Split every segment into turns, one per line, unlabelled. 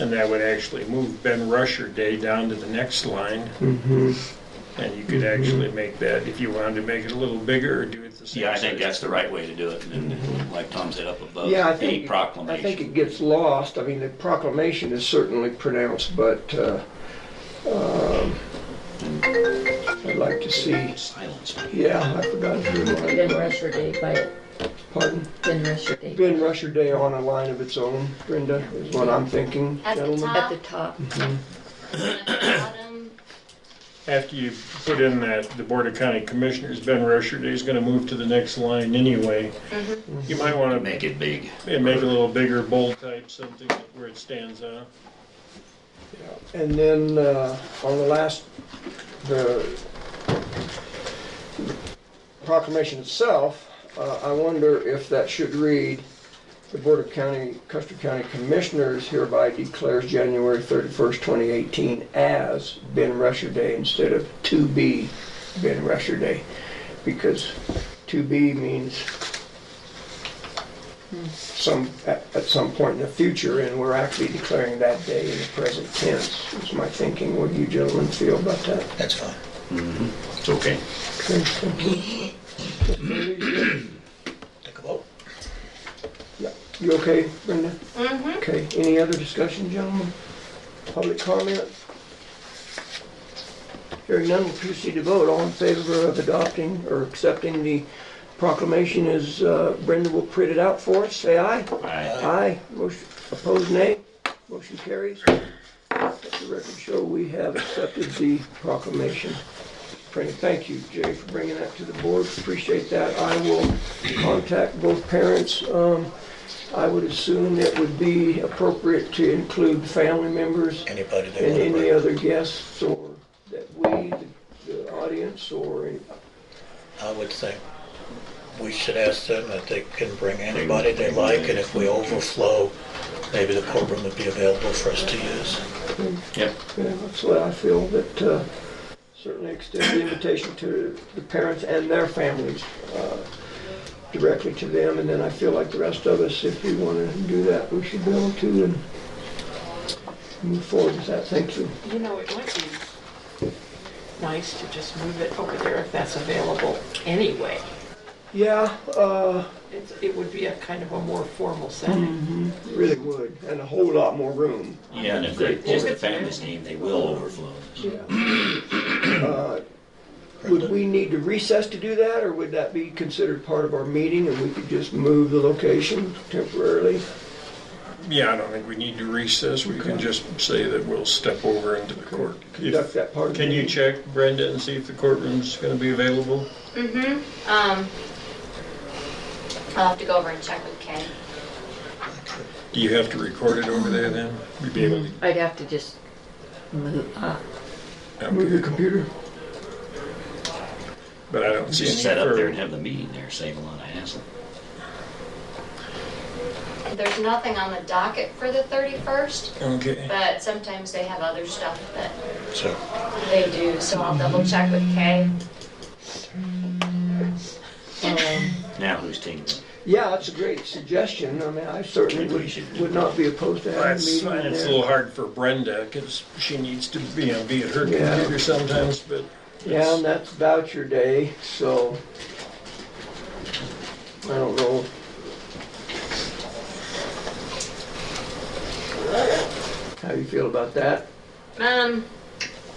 And that would actually move Ben Rusher Day down to the next line,
Mhm.
and you could actually make that, if you wanted to make it a little bigger or do it the same.
Mm-hmm. Yeah, I think
size.
that's the right way to do it, and then, like Tom said, up above,
Yeah, I
a
think, I think
proclamation.
it gets lost. I mean, the proclamation is certainly pronounced, but uh, um, I'd like to see,
Silence.
yeah, I forgot to
Ben
remind,
Rusher Day, by
pardon.
Ben Rusher Day.
Ben Rusher Day on a line of its own, Brenda, is what I'm thinking,
At the
gentlemen.
At the top,
at the bottom,
After you put in that, the Board of County Commissioners, Ben Rusher Day is gonna move to the next line anyway. You might wanna make
Mm-hmm. Make it big.
it a little bigger, bold type, something where it stands out.
And then uh, on the last, the proclamation itself, uh, I wonder if that should read, "The Board of County, Custer County Commissioners hereby declares January 31st, 2018 as Ben Rusher Day instead of "to be Ben Rusher Day," because "to be" means some, at, at some point in the future, and we're actually declaring that day in the present tense, is my thinking. What do you gentlemen feel about that?
That's fine.
It's okay.
Okay, thank you.
Take a vote.
You okay, Brenda? Mm-hmm. Okay, any other discussion, gentlemen? Public comment? Hearing none, we'll proceed to vote. All in favor of adopting or accepting the proclamation is, uh, Brenda will print it out for us. Say aye.
I
Aye. Motion, opposed, nay. Motion carries. Let the record show we have accepted the proclamation. Printed. Thank you, Jay, for bringing that to the board. Appreciate that. I will contact both parents. Um, I would assume it would be appropriate to include family members
Anybody that
and
want to
any
bring.
other guests or that we, the- the audience, or any-
I would think we should ask them if they can bring anybody they like, and if we overflow, maybe the courtroom would be available for us to use.
Yep.
Yeah, that's what I feel, that uh, certainly extend the invitation to the parents and their families uh, directly to them, and then I feel like the rest of us, if we want to do that, we should be able to and move forward with that. Thank you.
You know, it might be nice to just move it over there if that's available anyway.
Yeah, uh,
It's, it would be a kind of a more formal setting.
really would, and a whole lot more room.
Yeah, and if they post the family's name, they will overflow.
Uh, Would we need to recess to do that, or would that be considered part of our meeting and we could just move the location temporarily?
Yeah, I don't think we need to recess, we can just say that we'll step over into the court.
Conduct that part of the
Can you
meeting?
check Brenda and see if the courtroom's gonna be available?
um, I'll have to go over and check with Kay.
Do you have to record it over there then? You'd be able
I'd have to just move, uh,
to.
Move your computer.
But I don't see any.
Just set up
for-
there and have the meeting there, save a lot of hassle.
There's nothing on the docket for the 31st,
Okay.
but sometimes they have other stuff that
So,
they do, so I'll double check with Kay.
Now who's taking it?
Yeah, that's a great suggestion. I mean, I certainly
Maybe we
would,
should do
would not be opposed to having a
That's,
meeting
it's a
there.
little hard for Brenda, because she needs to be, you know, be at her
Yeah.
computer sometimes, but
Yeah, and that's voucher day, so I don't know. How you feel about that?
Um,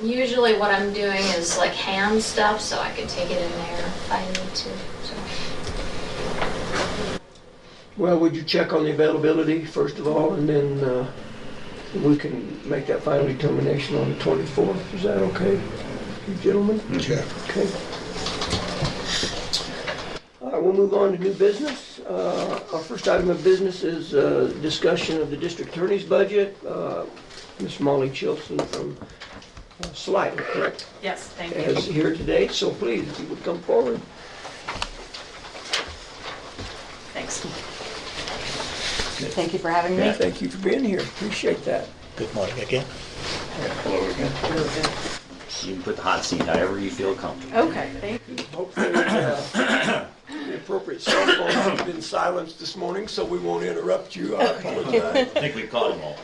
usually what I'm doing is like ham stuff, so I could take it in there if I need to. So
Well, would you check on the availability first of all, and then, uh, we can make that final determination on the twenty-fourth? Is that okay, you gentlemen?
sure.
Okay. All right, we'll move on to new business. Uh, Our first item of business is uh, discussion of the district attorney's budget. Uh, Ms. Molly Chilson from uh, Slidell, correct,
Yes, thank
is here today, so please, if you would come forward.
Thanks.
Thank you for having me.
Yeah, Thank you for being here, appreciate that.
Good morning again.
You can put the hot seat however you feel comfortable.
Okay, thank you.
Hopefully, uh, the appropriate cell phones have been silenced this morning, so we won't interrupt you. I apologize.
I think we caught them all.